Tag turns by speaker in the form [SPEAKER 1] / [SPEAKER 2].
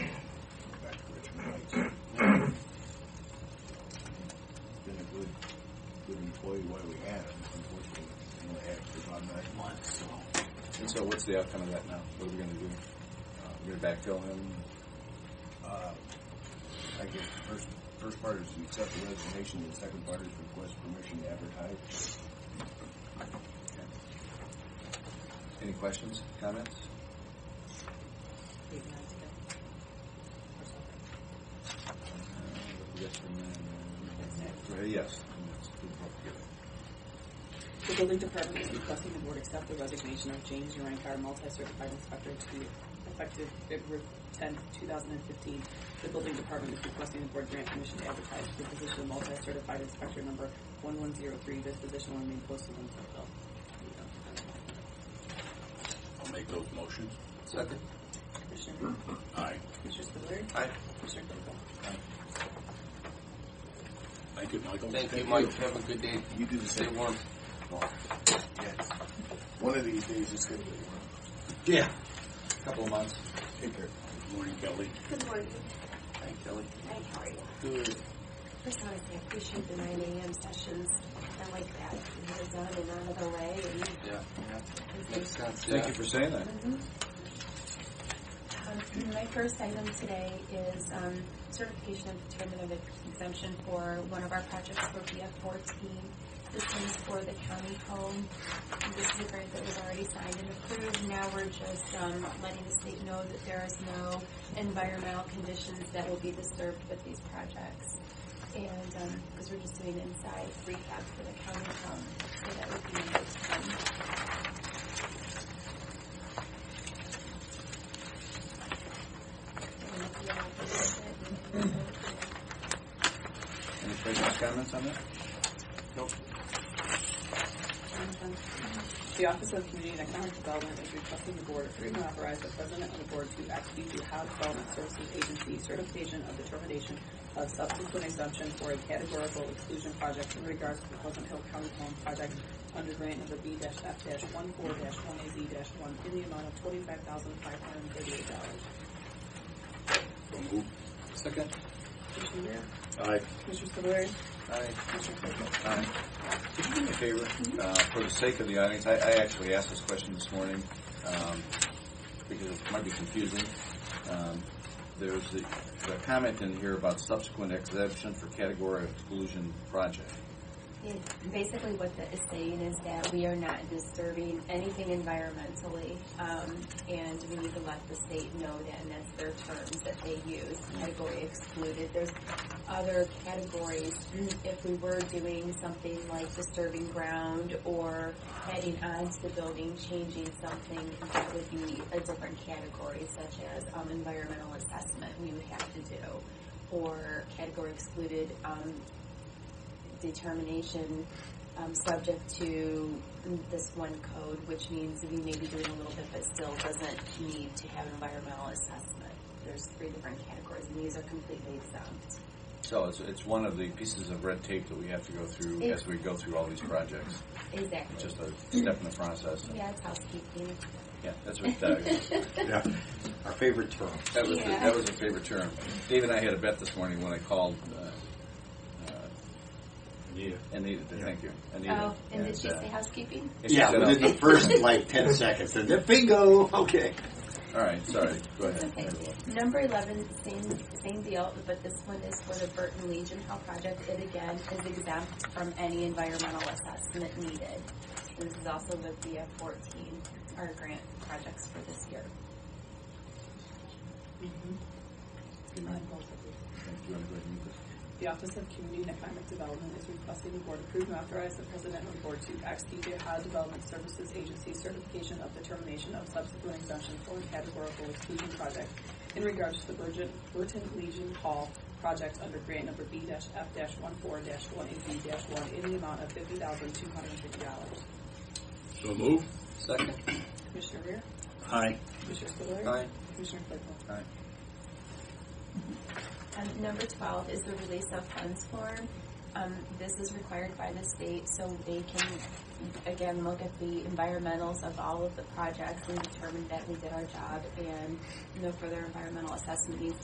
[SPEAKER 1] what's the outcome of that now? What are we gonna do? Uh, we're gonna backfill him?
[SPEAKER 2] Uh, I guess the first, first part is to accept the resignation, and the second part is request permission to advertise.
[SPEAKER 1] Any questions, comments?
[SPEAKER 3] Eight months ago. Or something.
[SPEAKER 1] Uh, yes and then- uh, Yes. and that's good vote together.
[SPEAKER 3] The building department is requesting the board accept the resignation of James Urankar, multi-certified inspector to be effective February 10, 2015. The building department is requesting the board grant permission to advertise for the position of multi-certified inspector number 1103. This position will remain posted until filled.
[SPEAKER 4] I'll make those motions.
[SPEAKER 1] Second?
[SPEAKER 3] Commissioner Rea?
[SPEAKER 4] Aye.
[SPEAKER 3] Commissioner Spudler?
[SPEAKER 1] Aye.
[SPEAKER 3] Commissioner Claypool?
[SPEAKER 4] Thank you, Michael.
[SPEAKER 5] Thank you, Mike. Have a good day.
[SPEAKER 2] You do the
[SPEAKER 5] Stay warm.
[SPEAKER 2] Yes. One of these days, it's gonna be one.
[SPEAKER 1] Yeah. Couple of months.
[SPEAKER 2] Take care.
[SPEAKER 4] Good Morning, Kelly.
[SPEAKER 6] Good morning.
[SPEAKER 1] Hi, Kelly.
[SPEAKER 6] Hi, how are you?
[SPEAKER 4] Good.
[SPEAKER 6] First, I want to say I appreciate the nine AM sessions. I like that. You get it done and out of the way and.
[SPEAKER 5] Yeah. Makes sense.
[SPEAKER 1] Thank
[SPEAKER 5] yeah.
[SPEAKER 1] you for saying that.
[SPEAKER 6] Um, My first item today is um, certification of determinative exemption for one of our projects for BF fourteen. This is for the county home. This is a grant that was already signed and approved. Now we're just um, letting the state know that there is no environmental conditions that will be disturbed with these projects. And, because we're just doing inside rehab for the county home, so that would be um,
[SPEAKER 1] Any questions, comments on that?
[SPEAKER 3] The Office of Community and Economic Development is requesting the board approve and authorize the president of the board to execute the Ohio Development Services Agency certification of determination of subsequent exemption for a categorical exclusion project in regards to the Pleasant Hill County Home Project under grant number B-F-14-1AZ-1 in the amount of $25,538.
[SPEAKER 4] So moved.
[SPEAKER 1] Second?
[SPEAKER 3] Commissioner Rea?
[SPEAKER 4] Aye.
[SPEAKER 3] Commissioner Spudler?
[SPEAKER 1] Aye.
[SPEAKER 3] Commissioner Claypool?
[SPEAKER 1] Aye. Could you do me a favor, uh, for the sake of the audience, I, I actually asked this question this morning, um, because it might be confusing. Um, there's the, the comment in here about subsequent exemption for category of exclusion project.
[SPEAKER 6] It- Basically, what that is saying is that we are not disturbing anything environmentally, um, and we need to let the state know that, and that's their terms that they use, category excluded. There's other categories, Mm, if we were doing something like disturbing ground or adding on to the building, changing something, that would be a different category, such as, um, environmental assessment we would have to do, or category excluded, um, determination um, subject to this one code, which means we may be doing a little bit, but still doesn't need to have environmental assessment. There's three different categories, and these are completely exempt.
[SPEAKER 1] So it's, it's one of the pieces of red tape that we have to go through as we go through all these projects. It's
[SPEAKER 6] Exactly.
[SPEAKER 1] just a
[SPEAKER 6] Mm.
[SPEAKER 1] step in the process.
[SPEAKER 6] Yeah, it's housekeeping.
[SPEAKER 1] Yeah, that's what, that,
[SPEAKER 4] Yeah. Our favorite term.
[SPEAKER 1] That was the,
[SPEAKER 6] Yeah.
[SPEAKER 1] that was a favorite term. Dave and I had a bet this morning when I called uh, uh,
[SPEAKER 4] Yeah.
[SPEAKER 1] Anita. to
[SPEAKER 4] Yeah.
[SPEAKER 1] Thank you, Anita.
[SPEAKER 6] Oh, and did she
[SPEAKER 1] uh,
[SPEAKER 6] say housekeeping?
[SPEAKER 1] and she
[SPEAKER 4] Yeah,
[SPEAKER 1] said,
[SPEAKER 4] within the
[SPEAKER 1] "Oh,
[SPEAKER 4] first like ten seconds, and then bingo. Okay.
[SPEAKER 1] All right, sorry. Go
[SPEAKER 6] It's
[SPEAKER 1] ahead.
[SPEAKER 6] okay. Number eleven, same, same deal, but this one is for the Burton Legion Hall project. It again is exempt from any environmental assessment needed. This is also with the F fourteen, our grant projects for this year.
[SPEAKER 3] Mm-hmm.
[SPEAKER 1] Good night. Thank you. Wanna go ahead and move this?
[SPEAKER 3] The Office of Community and Economic Development is requesting the board approve and authorize the president of the board to execute the Ohio Development Services Agency certification of determination of subsequent exemption for a categorical exclusion project in regards to the Virgin, Burton Legion Hall project under grant number B-F-14-1AZ-1 in the amount of $50,250.
[SPEAKER 4] So moved.
[SPEAKER 1] Second.
[SPEAKER 3] Commissioner Rea?
[SPEAKER 4] Aye.
[SPEAKER 3] Commissioner Spudler?
[SPEAKER 1] Aye.
[SPEAKER 3] Commissioner Claypool?
[SPEAKER 1] Aye.
[SPEAKER 6] Um, number twelve is the release of funds form. Um, this is required by the state, so they can, again, look at the environmentals of all of the projects and determine that we did our job and no further environmental assessment needs